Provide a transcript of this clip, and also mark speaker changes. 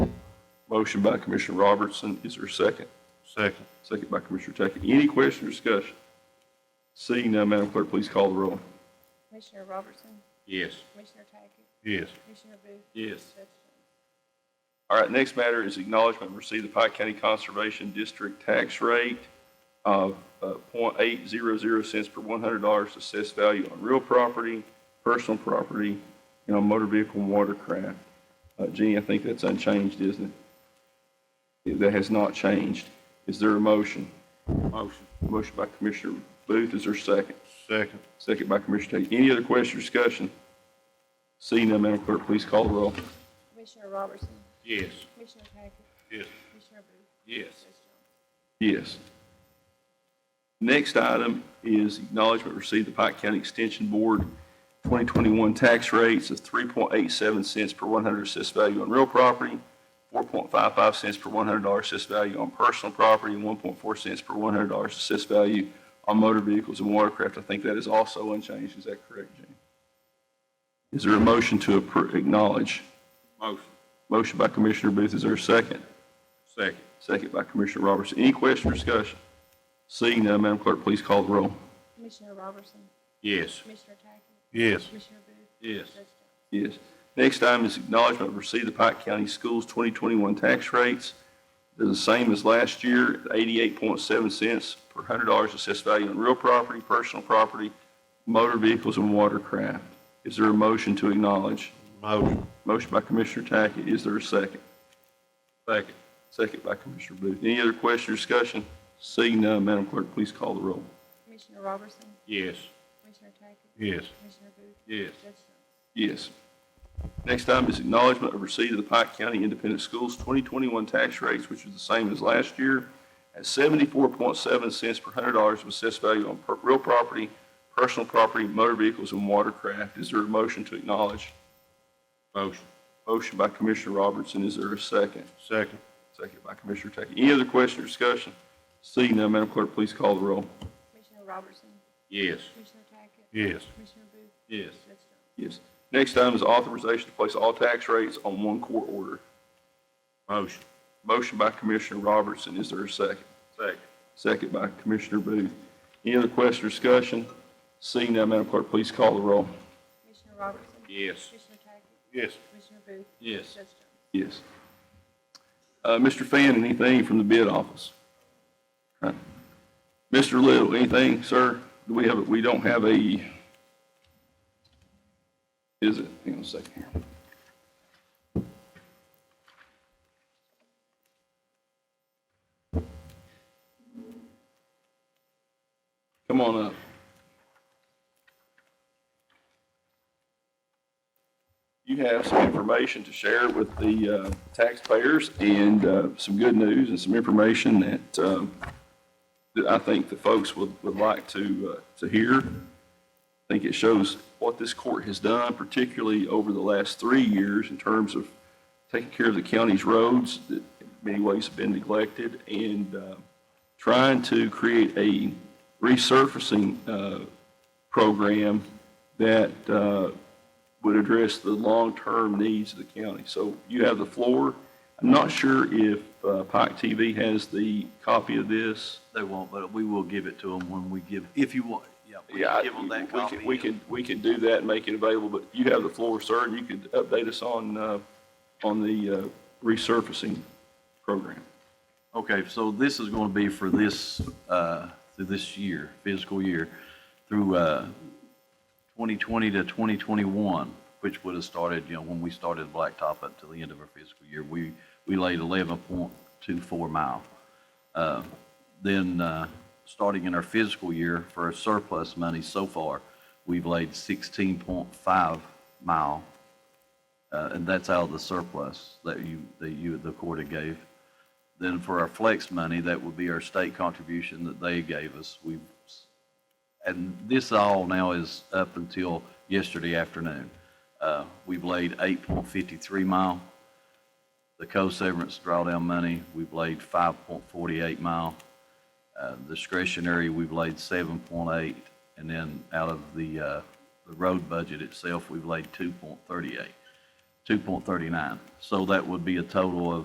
Speaker 1: Motion by Commissioner Robertson, is there a second?
Speaker 2: Second.
Speaker 1: Second by Commissioner Tackett. Any question or discussion? Seeing none, Madam Clerk, please call the roll.
Speaker 3: Commissioner Robertson,
Speaker 2: Yes.
Speaker 3: Commissioner Tackett,
Speaker 2: Yes.
Speaker 3: Commissioner Booth.
Speaker 1: Yes.
Speaker 3: Judge Jones.
Speaker 1: All right, next matter is acknowledgement of receipt of Pike County Conservation District tax rate of uh, .800 cents per $100 assessed value on real property, personal property, and on motor vehicle and watercraft. Uh, Jeannie, I think that's unchanged, isn't it? That has not changed. Is there a motion?
Speaker 2: Motion.
Speaker 1: Motion by Commissioner Booth, is there a second?
Speaker 2: Second.
Speaker 1: Second by Commissioner Tate. Any other question or discussion? Seeing none, Madam Clerk, please call the roll.
Speaker 3: Commissioner Robertson,
Speaker 2: Yes.
Speaker 3: Commissioner Tackett,
Speaker 2: Yes.
Speaker 3: Commissioner Booth.
Speaker 2: Yes.
Speaker 3: Judge
Speaker 1: Yes.
Speaker 3: Jones.
Speaker 1: Next item is acknowledgement received the Pike County Extension Board 2021 tax rates of 3.87 cents per 100 assessed value on real property, 4.55 cents per $100 assessed value on personal property, and 1.4 cents per $100 assessed value on motor vehicles and watercraft. I think that is also unchanged. Is that correct, Jane? Is there a motion to appro- acknowledge?
Speaker 2: Motion.
Speaker 1: Motion by Commissioner Booth, is there a second?
Speaker 2: Second.
Speaker 1: Second by Commissioner Robertson. Any question or discussion? Seeing none, Madam Clerk, please call the roll.
Speaker 3: Commissioner Robertson,
Speaker 2: Yes.
Speaker 3: Commissioner Tackett,
Speaker 2: Yes.
Speaker 3: Commissioner Booth.
Speaker 2: Yes.
Speaker 3: Judge Jones.
Speaker 1: Yes. Next item is acknowledgment of receipt of Pike County Schools 2021 tax rates. They're the same as last year, 88.7 cents per $100 assessed value on real property, personal property, motor vehicles, and watercraft. Is there a motion to acknowledge?
Speaker 2: Motion.
Speaker 1: Motion by Commissioner Tackett, is there a second?
Speaker 2: Second.
Speaker 1: Second by Commissioner Booth. Any other question or discussion? Seeing none, Madam Clerk, please call the roll.
Speaker 3: Commissioner Robertson,
Speaker 2: Yes.
Speaker 3: Commissioner Tackett,
Speaker 2: Yes.
Speaker 3: Commissioner Booth.
Speaker 2: Yes.
Speaker 3: Judge Jones.
Speaker 1: Yes. Next item is acknowledgment of receipt of the Pike County Independent Schools 2021 tax rates, which is the same as last year, at 74.7 cents per hundred dollars of assessed value on per- real property, personal property, motor vehicles, and watercraft. Is there a motion to acknowledge?
Speaker 2: Motion.
Speaker 1: Motion by Commissioner Robertson, is there a second?
Speaker 2: Second.
Speaker 1: Second by Commissioner Tackett. Any other question or discussion? Seeing none, Madam Clerk, please call the roll.
Speaker 3: Commissioner Robertson,
Speaker 2: Yes.
Speaker 3: Commissioner Tackett,
Speaker 2: Yes.
Speaker 3: Commissioner Booth.
Speaker 2: Yes.
Speaker 3: Judge
Speaker 1: Yes.
Speaker 3: Jones.
Speaker 1: Next item is authorization to place all tax rates on one court order.
Speaker 2: Motion.
Speaker 1: Motion by Commissioner Robertson, is there a second?
Speaker 2: Second.
Speaker 1: Second by Commissioner Booth. Any other question or discussion? Seeing none, Madam Clerk, please call the roll.
Speaker 3: Commissioner Robertson.
Speaker 2: Yes.
Speaker 3: Commissioner Tackett,
Speaker 2: Yes.
Speaker 3: Commissioner Booth.
Speaker 2: Yes.
Speaker 3: Judge Jones.
Speaker 1: Yes. Uh, Mr. Fan, anything from the bid office? Huh. Mr. Little, anything, sir? Do we have, we don't have a, is it, hang on a second here. Come on up. you have some information to share with the uh, taxpayers and uh, some good news and some information that, um, that I think the folks would, would like to, uh, to hear. I think it shows what this court has done, particularly over the last three years in terms of taking care of the county's roads that in many ways have been neglected and uh, trying to create a resurfacing uh, program that uh, would address the long-term needs of the county. So you have the floor. I'm not sure if uh, Pike TV has the copy of this.
Speaker 4: They won't, but we will give it to them when we give, if you want, yeah. we can
Speaker 1: Yeah,
Speaker 4: Give
Speaker 1: we
Speaker 4: them that
Speaker 1: could-
Speaker 4: copy.
Speaker 1: We could, we could do that and make it available, but you have the floor, sir, and you could update us on, uh, on the uh, resurfacing program.
Speaker 4: Okay, so this is going to be for this, uh, through this year, fiscal year, through uh, 2020 to 2021, which would have started, you know, when we started Blacktop up to the end of our fiscal year, we, we laid 11.24 mile. Uh, Then, uh, starting in our fiscal year for our surplus money so far, we've laid 16.5 mile uh, and that's out of the surplus that you, that you, the quarter gave. Then for our flex money, that would be our state contribution that they gave us. We, and this all now is up until yesterday afternoon. Uh, We've laid 8.53 mile. The co-severance drawdown money, we've laid 5.48 mile. Uh, Discretionary, we've laid 7.8. And then out of the, uh, the road budget itself, we've laid 2.38. 2.39. So that would be a total of